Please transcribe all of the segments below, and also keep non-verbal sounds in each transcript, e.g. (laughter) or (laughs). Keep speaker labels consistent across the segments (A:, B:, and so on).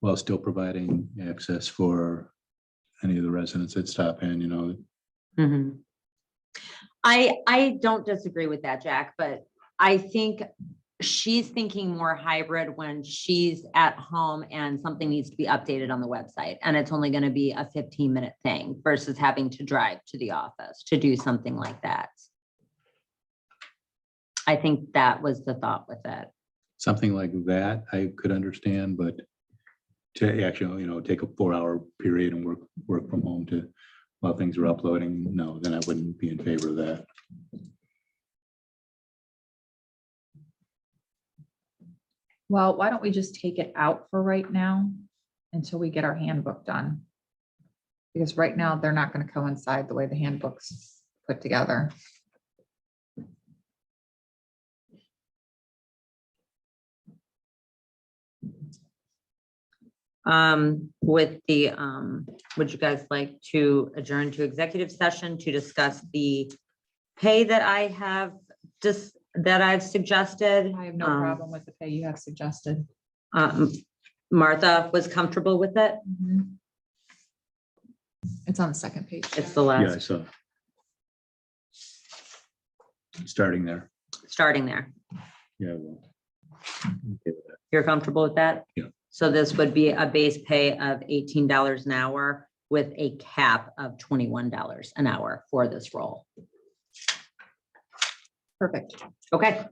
A: while still providing access for any of the residents that stop in, you know,
B: Mhm. I, I don't disagree with that, Jack, but I think she's thinking more hybrid when she's at home and something needs to be updated on the website. And it's only going to be a fifteen minute thing versus having to drive to the office to do something like that. I think that was the thought with it.
A: something like that, I could understand, but to actually, you know, take a four-hour period and work, work from home to, while things are uploading, no, then I wouldn't be in favor of that.
C: Well, why don't we just take it out for right now until we get our handbook done? Because right now, they're not gonna coincide the way the handbook's put together.
B: um, with the, um, would you guys like to adjourn to executive session to discuss the pay that I have just, that I've suggested?
C: I have no
B: Um,
C: problem with the pay you have suggested.
B: Um, Martha was comfortable with it.
C: It's on the second page.
B: It's the
A: Yeah,
B: last,
A: so. Starting there,
B: starting there.
A: yeah. well, okay with that.
B: You're comfortable with that?
A: Yeah.
B: So this would be a base pay of eighteen dollars an hour with a cap of twenty-one dollars an hour for this role.
C: Perfect.
B: Okay.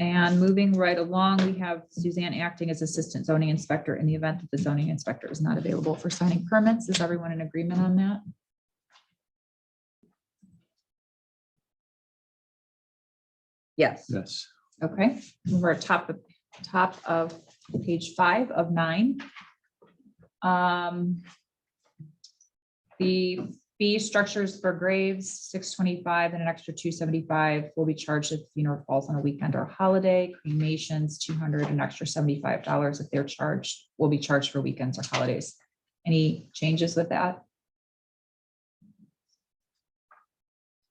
C: And moving right along, we have Suzanne acting as Assistant Zoning Inspector in the event that the zoning inspector is not available for signing permits. Is everyone in agreement on that?
B: Yes.
A: Yes,
C: Okay, we're at top, of top of page five of nine. Um, The fee structures for graves, six twenty-five and an extra two seventy-five will be charged if funeral falls on a weekend or holiday. Cremations, two hundred, an extra seventy-five dollars if they're charged, will be charged for weekends or holidays. Any changes with that?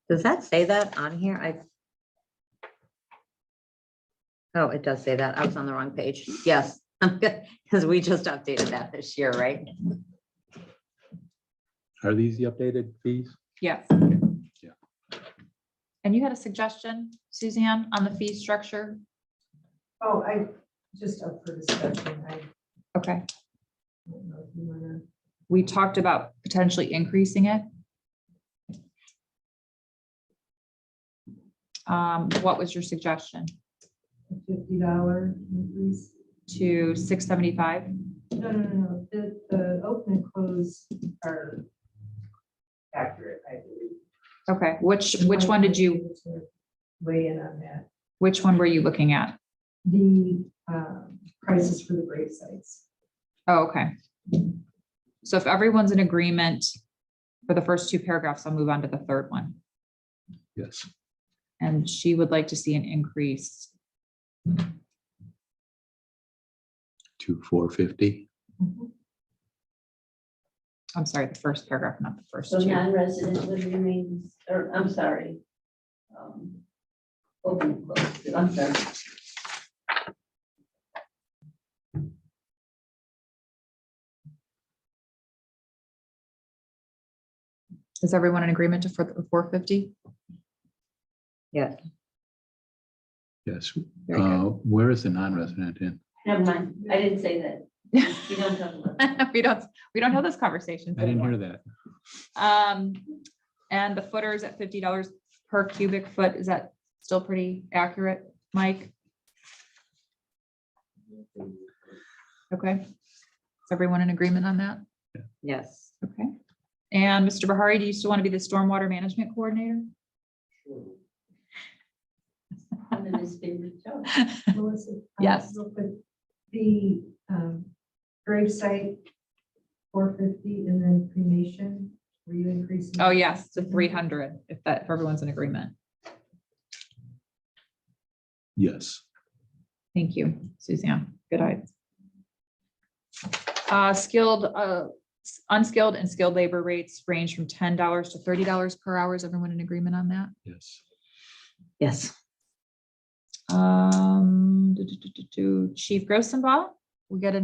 B: Does that say that on here? I. Oh, it does say that. I was on the wrong page. Yes, (laughs) because we just updated that this year, right?
A: are these the updated fees?
C: Yes.
A: Yeah.
C: And you had a suggestion, Suzanne, on the fee structure?
D: Oh, I, just up for discussion, I
C: Okay.
D: don't know if you wanna.
C: we talked about potentially increasing it. Um, what was your suggestion?
D: a fifty dollar increase.
C: To six seventy-five?
D: No, no, no, no, the, the open and close are accurate, I believe.
C: Okay, which, which one did you,
D: Weigh in on that.
C: which one were you looking at?
D: The, um, prices for the grave sites.
C: Oh, okay. So if everyone's in agreement for the first two paragraphs, I'll move on to the third one.
A: Yes,
C: And she would like to see an increase
A: two, four fifty.
C: I'm sorry, the first paragraph, not the first
E: So
C: two.
E: non-resident would remain, or I'm sorry. um, Open, close, I'm sorry.
C: Is everyone in agreement to for the four fifty?
B: Yes.
A: Yes,
C: Very
A: uh,
C: good.
A: where is the non-resident in?
E: Never mind, I didn't say that. You don't talk about. that.
C: (laughs) We don't, we don't have this conversation.
A: I didn't hear that.
C: Um, and the footer is at fifty dollars per cubic foot. Is that still pretty accurate, Mike? Okay. Is everyone in agreement on that?
B: Yes.
C: Okay. And Mr. Bahari, do you still want to be the stormwater management coordinator?
E: I'm in his favorite job.
D: (laughs) Melissa? um,
C: Yes.
D: real quick, The, um, grave site, four fifty, and then cremation, were you increasing?
C: Oh, yes, to three hundred, if that, if everyone's in agreement.
A: Yes,
C: Thank you, Suzanne. Good eye. Uh, skilled, uh, s- unskilled and skilled labor rates range from ten dollars to thirty dollars per hour. Is everyone in agreement on that?
A: yes,
B: Yes.
C: Um, do, do, do, do, do. Chief Grossenbaugh, we got a